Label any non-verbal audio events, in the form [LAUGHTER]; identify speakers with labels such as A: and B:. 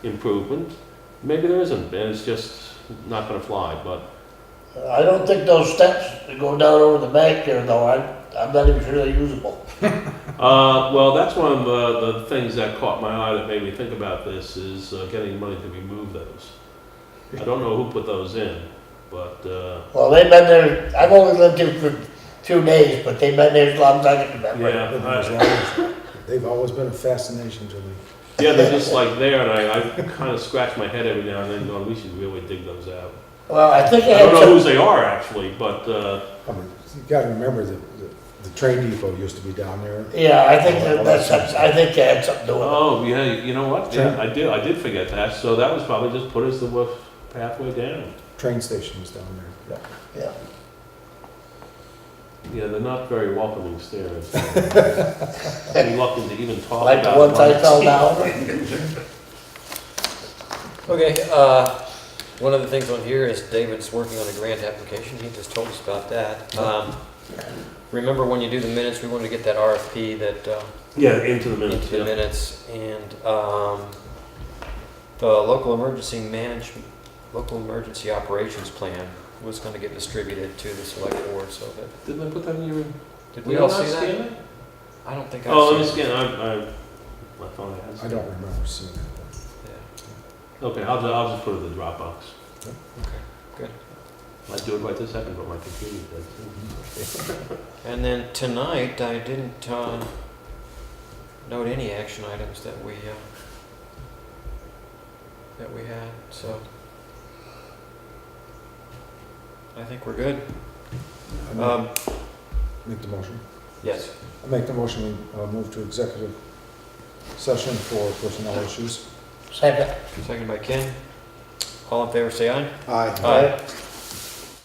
A: improvement. Maybe there isn't, and it's just not gonna fly, but
B: Uh, I don't think those steps that go down over the bank there though, I, I'm not even sure they're usable.
A: Uh, well, that's one of the, the things that caught my eye that made me think about this is uh, getting money to remove those. I don't know who put those in, but uh,
B: Well, they've been there, I've only lived here for a few days, but they've been there as long as I can remember.
A: yeah, I,
C: [LAUGHS] They've always been a fascination to me.
A: yeah, they're just like there, and I, I kind of scratch my head every now and then, going, we should really dig those out.
B: Well, I think
A: I don't
B: I had
A: know
B: some,
A: whose they are actually, but uh,
C: I mean, you gotta remember that the, the train depot used to be down there.
B: yeah, I think that, that's, I think they had something to do with it.
A: oh yeah, you know what? Yeah,
C: Sure.
A: I did, I did forget that. So that was probably just put us the woof pathway down.
C: Train station was down there.
B: Yeah.
A: Yeah, they're not very welcoming stairs. Reluctant to even talk
B: Like the
A: about
B: ones I
A: money.
B: fell
A: [LAUGHS]
B: down.
D: Okay, uh, one of the things on here is David's working on a grant application, he just told us about that. Um, Remember when you do the minutes, we wanted to get that RFP that, uh,
A: Yeah, into the minutes.
D: into the
A: Mm-hmm. yeah.
D: minutes, and, um, the local emergency manage, local emergency operations plan was gonna get distributed to the select board, so that,
A: Didn't I put that in your?
D: did
A: Did
D: we all
A: not
D: see
A: scan
D: that?
A: it?
D: I don't think I
A: Oh, let me
D: saw it.
A: scan. I, I, my phone has.
C: I don't remember seeing that.
D: Yeah,
A: Okay, I'll, ju- I'll just put it in the Dropbox.
D: okay.
A: I do it right this second, but my computer does.
D: And then tonight, I didn't uh, note any action items that we, uh, that we had, so. I think we're good.
C: I make-
D: Um,
C: Make the motion.
D: yes,
C: I make the motion, we uh, move to executive session for personnel issues.
B: Second,
D: second by Ken. All in favor, say aye.
C: Aye.
B: Aye.